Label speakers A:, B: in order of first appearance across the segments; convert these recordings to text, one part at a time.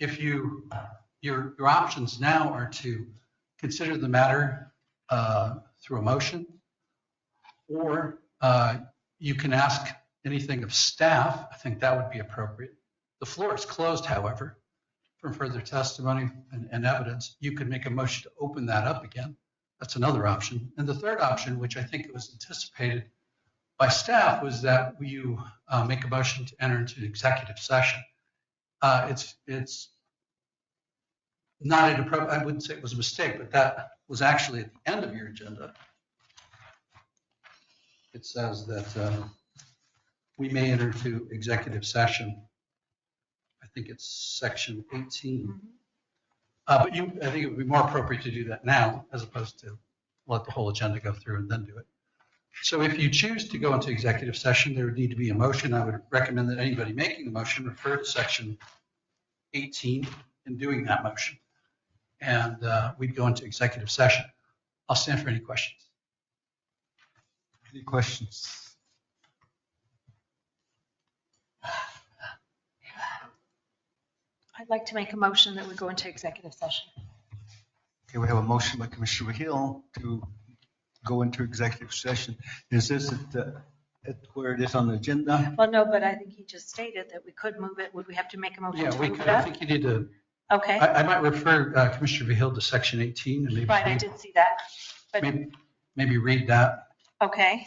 A: if you, your, your options now are to consider the matter uh, through a motion, or uh, you can ask anything of staff. I think that would be appropriate. The floor is closed, however, for further testimony and, and evidence. You could make a motion to open that up again. That's another option. And the third option, which I think was anticipated by staff, was that you uh, make a motion to enter into executive session. Uh, It's, it's not inappropriate, I wouldn't say it was a mistake, but that was actually at the end of your agenda. It says that uh, we may enter into executive session. I think it's section 18. Uh, But you, I think it would be more appropriate to do that now as opposed to let the whole agenda go through and then do it. So if you choose to go into executive session, there would need to be a motion. I would recommend that anybody making the motion refer to section 18 in doing that motion. And uh, we'd go into executive session. I'll stand for any questions.
B: Any questions?
C: I'd like to make a motion that we go into executive session.
B: Okay, we have a motion by Commissioner Hill to go into executive session. Is this at, the- at where it is on the agenda?
C: Well, no, but I think he just stated that we could move it. Would we have to make a motion
A: Yeah,
C: to
A: we
C: move
A: could,
C: it
A: I
C: up?
A: think you need to,
C: Okay,
A: I, I might refer uh, Commissioner Vehil to section 18 and maybe.
C: right, I did see that. but-
A: maybe- Maybe read that
C: Okay.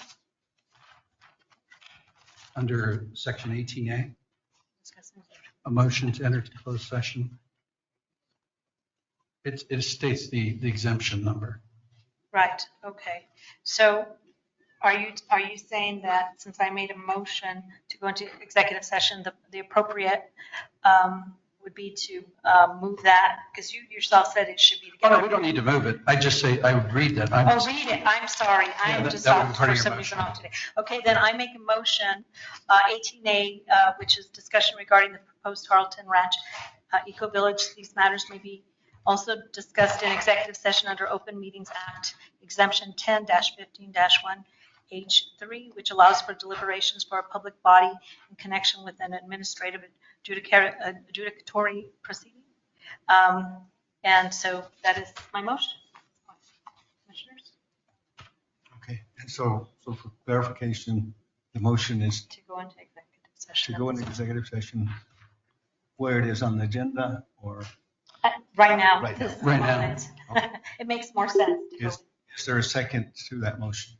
A: under section 18A, a motion to enter to closed session. It, it states the, the exemption number.
C: Right, okay. So are you, are you saying that since I made a motion to go into executive session, the, the appropriate um, would be to uh, move that? Because you yourself said it should be
A: Oh,
C: together.
A: no, we don't need to move it. I just say, I would read that. I'm-
C: Oh, read it. I'm sorry. I
A: Yeah,
C: am
A: that-
C: just
A: that would be
C: off
A: part
C: for
A: of your
C: some reason
A: motion.
C: off today. Okay, then I make a motion, uh, 18A, uh, which is discussion regarding the proposed Harleton Ranch uh, Eco Village. These matters may be also discussed in executive session under Open Meetings Act exemption 10-15-1H3, which allows for deliberations for a public body in connection with an administrative adjudica- adjudicatory proceeding. Um, And so that is my motion. Commissioners?
B: Okay, and so, so for clarification, the motion is
C: to go into executive
B: to
C: session.
B: go into executive session where it is on the agenda or
C: Uh, Right now.
B: Right now.
C: this
A: Right now.
C: moment. It makes more sense to go.
B: Yes. is there a second to that motion?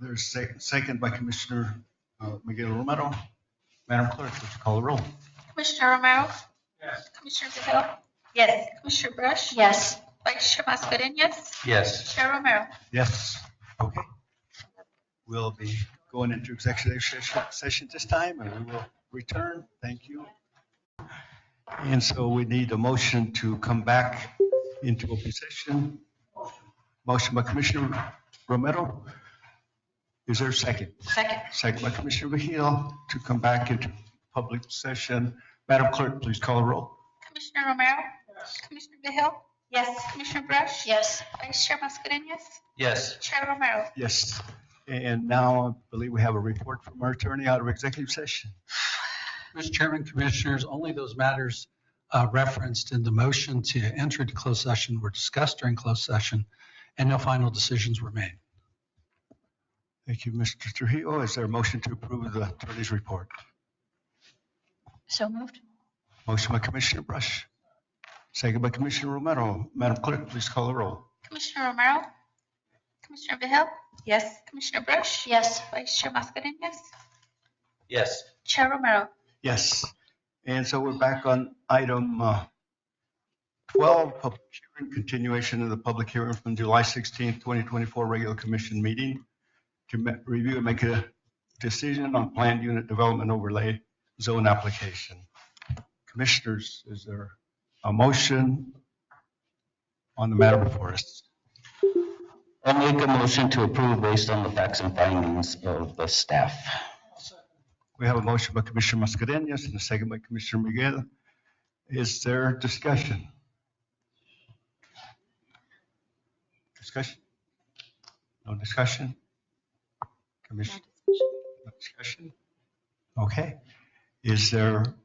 B: There's second, second by Commissioner uh, Miguel Romero. Madam Clerk, would you call the roll?
D: Commissioner Romero?
A: Yes.
D: Commissioner Vehil?
C: Yes.
D: Commissioner Brush?
C: Yes.
D: Vice Chair Mascherini, yes?
A: Yes.
D: Chair Romero?
B: Yes, okay. We'll be going into executive session- session this time and we will return. Thank you. And so we need a motion to come back into open session. Motion by Commissioner Romero. Is there a second?
C: Second.
B: Second by Commissioner Vehil to come back into public session. Madam Clerk, please call the roll.
D: Commissioner Romero? Commissioner Vehil?
C: Yes.
D: Commissioner Brush?
C: Yes.
D: Vice Chair Mascherini, yes?
A: Yes.
D: Chair Romero?
B: Yes. And now I believe we have a report from our attorney out of executive session.
A: Mr. Chairman, Commissioners, only those matters uh, referenced in the motion to enter into closed session were discussed during closed session, and no final decisions were made.
B: Thank you, Mr. Trujillo. Oh, Is there a motion to approve the attorney's report?
C: So moved.
B: Motion by Commissioner Brush, second by Commissioner Romero. Madam Clerk, please call the roll.
D: Commissioner Romero? Commissioner Vehil?
C: Yes.
D: Commissioner Brush?
C: Yes.
D: Vice Chair Mascherini, yes?
E: Yes.
D: Chair Romero?
B: Yes. And so we're back on item uh, 12, public hearing, continuation of the public hearing from July 16, 2024 regular commission meeting to ma- review and make a decision on planned unit development overlay zone application. Commissioners, is there a motion on the matter before us?
E: I make a motion to approve based on the facts and findings of the staff.
B: We have a motion by Commissioner Mascarenhas and a second by Commissioner Miguel. Is there discussion? Discussion? No discussion? Commission, no discussion? Okay. Is there